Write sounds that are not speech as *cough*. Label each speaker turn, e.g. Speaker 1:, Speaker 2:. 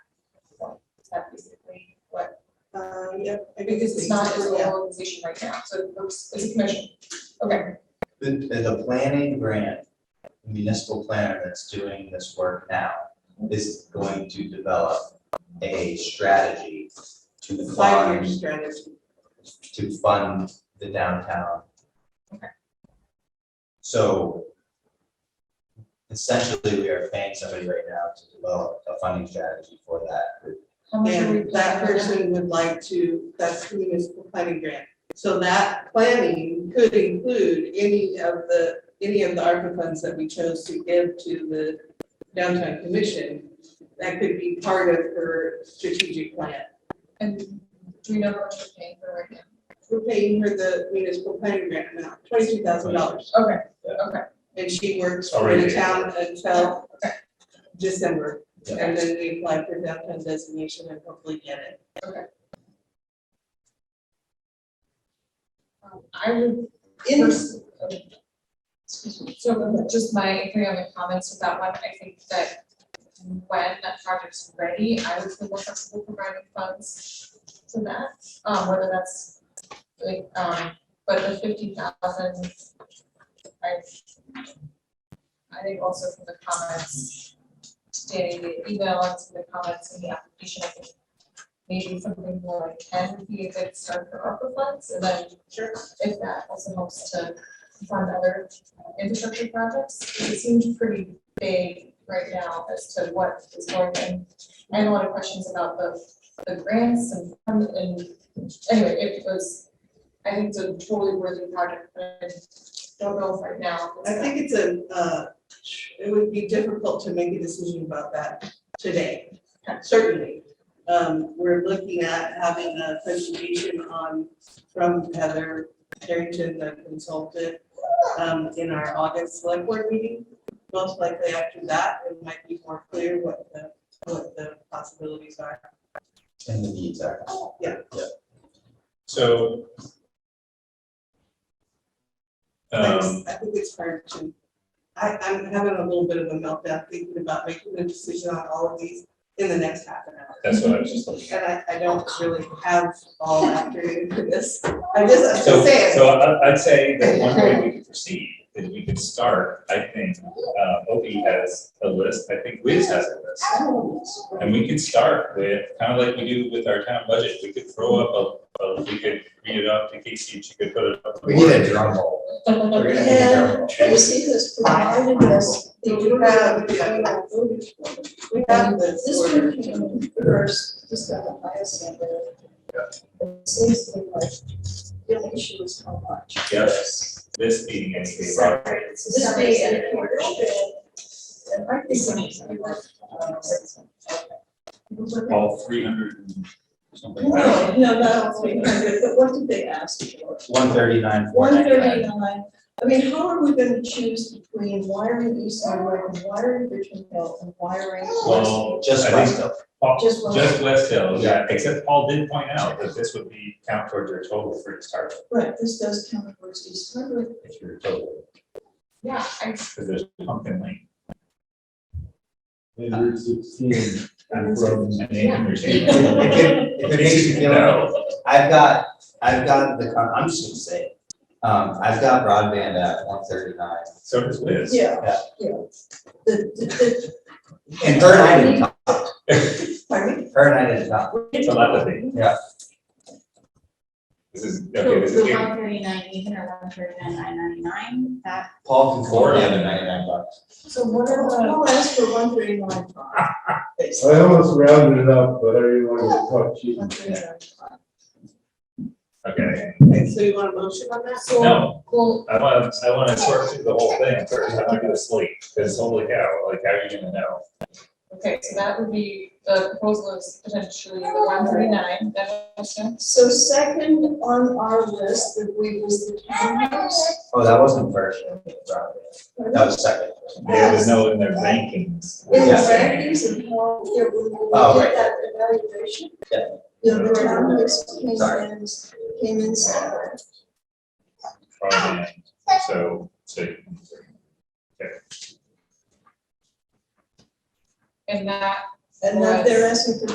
Speaker 1: that basically what,
Speaker 2: Um, yep. I
Speaker 1: because it's
Speaker 2: think
Speaker 1: not as
Speaker 2: yeah.
Speaker 1: an organization right now, so it works as a commission. Okay,
Speaker 3: The, the planning grant, municipal planner that's doing this work now is going to develop a strategy to
Speaker 2: Five-year
Speaker 3: fund,
Speaker 2: strategy.
Speaker 3: to fund the downtown.
Speaker 1: Okay.
Speaker 3: So essentially, we are paying somebody right now to develop a funding strategy for that group.
Speaker 1: how much are we
Speaker 2: And that
Speaker 1: planning right now?
Speaker 2: person would like to, that's the municipal planning grant. So that planning could include any of the, any of the ARPA funds that we chose to give to the downtown commission. That could be part of her strategic plan.
Speaker 1: And do we know how much we're paying for right now?
Speaker 2: We're paying her the municipal planning grant amount, twenty-two thousand dollars.
Speaker 1: Okay,
Speaker 2: And she works for the
Speaker 3: Already.
Speaker 2: town until December.
Speaker 3: Yeah.
Speaker 2: And then we apply for downtown designation and hopefully get it.
Speaker 1: um, I would.
Speaker 2: In-
Speaker 1: pers- Excuse me, so just my, three other comments with that one, I think that when that project's ready, I would feel more comfortable providing funds to that, um, whether that's like, um, but the fifty thousand, I I think also from the comments, Danny, the email and some of the comments in the application, I think maybe something more like ten would be a good start for ARPA funds, and then
Speaker 2: Sure.
Speaker 1: if that also helps to fund other infrastructure projects, 'cause it seems pretty vague right now as to what is going in. I had a lot of questions about the, the grants and, fund and, anyway, it was, I think it's a totally worthy project, but I don't know if right now. it's
Speaker 2: I
Speaker 1: *laughs*
Speaker 2: think it's a, uh, it would be difficult to make a decision about that today, certainly. Um, We're looking at having a presentation on, from Heather Carrington, the consultant, um, in our August select board meeting. Most likely after that, it might be more clear what the, what the possibilities are.
Speaker 3: And the needs are.
Speaker 4: So.
Speaker 2: I
Speaker 4: Um,
Speaker 2: just- I think it's hard to, I, I'm having a little bit of a meltdown thinking about making a decision on all of these in the next half an hour.
Speaker 4: that's what I was just looking
Speaker 2: And I, I don't really have all afternoon for this. I just, I'm
Speaker 4: So,
Speaker 2: just saying,
Speaker 4: so I, I'd say that one way we could proceed is we could start, I think, uh, Opie has a list, I think Wiz has a list. And we could start with, kind of like we do with our town budget, we could throw up a, a- we could read it off to Casey, and she could put it up. on the
Speaker 3: We need a
Speaker 4: board.
Speaker 3: drum roll. We're gonna need a drum
Speaker 5: And
Speaker 3: roll.
Speaker 5: Tracy has provided us the draft that we voted for.
Speaker 2: we have this.
Speaker 5: This
Speaker 2: order.
Speaker 5: one came first, this got the highest number. It seems to be like, the only issue is how much.
Speaker 4: Yes, this meeting, and we brought
Speaker 5: Separate, it's a separate
Speaker 1: This
Speaker 5: and
Speaker 1: may-
Speaker 5: a quarter bid. And I think some of them were, uh, six months.
Speaker 4: all three hundred and something.
Speaker 5: No, no, not all three hundred, but what did they ask for?
Speaker 3: One thirty-nine, four
Speaker 5: One
Speaker 3: ninety-nine.
Speaker 5: thirty-nine, I mean, how are we gonna choose between wiring East Hardwick and wiring Richmond Hill and wiring West?
Speaker 4: Well,
Speaker 3: Just
Speaker 4: I
Speaker 3: west
Speaker 4: think
Speaker 3: of,
Speaker 4: Paul-
Speaker 5: Just one.
Speaker 4: Just West Hill,
Speaker 3: Yeah.
Speaker 4: yeah, except Paul did point out that this would be count towards your total for the start,
Speaker 5: Right, this does count towards East Hardwick,
Speaker 4: if you're total,
Speaker 1: Yeah, I,
Speaker 4: because there's pumpkin lane.
Speaker 6: And Route sixteen,
Speaker 4: I'm from Nahum or
Speaker 3: It
Speaker 4: something.
Speaker 3: could- *laughs* if it makes you feel better,
Speaker 4: No,
Speaker 3: I've got, I've got the, con- I'm just gonna say it. Um, I've got broadband at one thirty-nine.
Speaker 4: So does Liz.
Speaker 5: yeah,
Speaker 3: Yeah.
Speaker 5: yeah. The, the,
Speaker 3: And her and I didn't talk,
Speaker 5: the, pardon me?
Speaker 3: her and I didn't talk.
Speaker 4: It's a lot of things.
Speaker 3: Yeah.
Speaker 4: This is,
Speaker 7: So
Speaker 4: okay, this is
Speaker 7: the
Speaker 4: getting,
Speaker 7: one thirty-nine, even or one thirty-nine, nine ninety-nine, that,
Speaker 3: Paul can afford the other ninety-nine bucks.
Speaker 5: So what are the, I'll ask for one thirty-nine five,
Speaker 6: I almost rounded it up, but I didn't want to talk cheap.
Speaker 5: one thirty-nine five.
Speaker 4: okay,
Speaker 2: Okay, so you want a motion on that?
Speaker 4: no,
Speaker 1: well,
Speaker 4: I want, to I want to sort through the whole thing, first, I'm gonna do a slate, because holy cow, like, how are you gonna know?
Speaker 1: okay, so that would be, the proposal is potentially the one thirty-nine, that motion.
Speaker 5: So second on our list that we was the townhouse.
Speaker 3: Oh, that wasn't first, I think, broadband. That was second.
Speaker 4: There was no in their rankings.
Speaker 5: In the
Speaker 3: Yeah.
Speaker 5: rankings and how, yeah, we
Speaker 3: Oh,
Speaker 5: we
Speaker 3: right.
Speaker 5: did that evaluation.
Speaker 3: Yeah.
Speaker 5: You know, the townhouse came
Speaker 3: Sorry.
Speaker 5: in, came in second.
Speaker 4: Broadband, so, so.
Speaker 1: And that
Speaker 5: And that they're asking for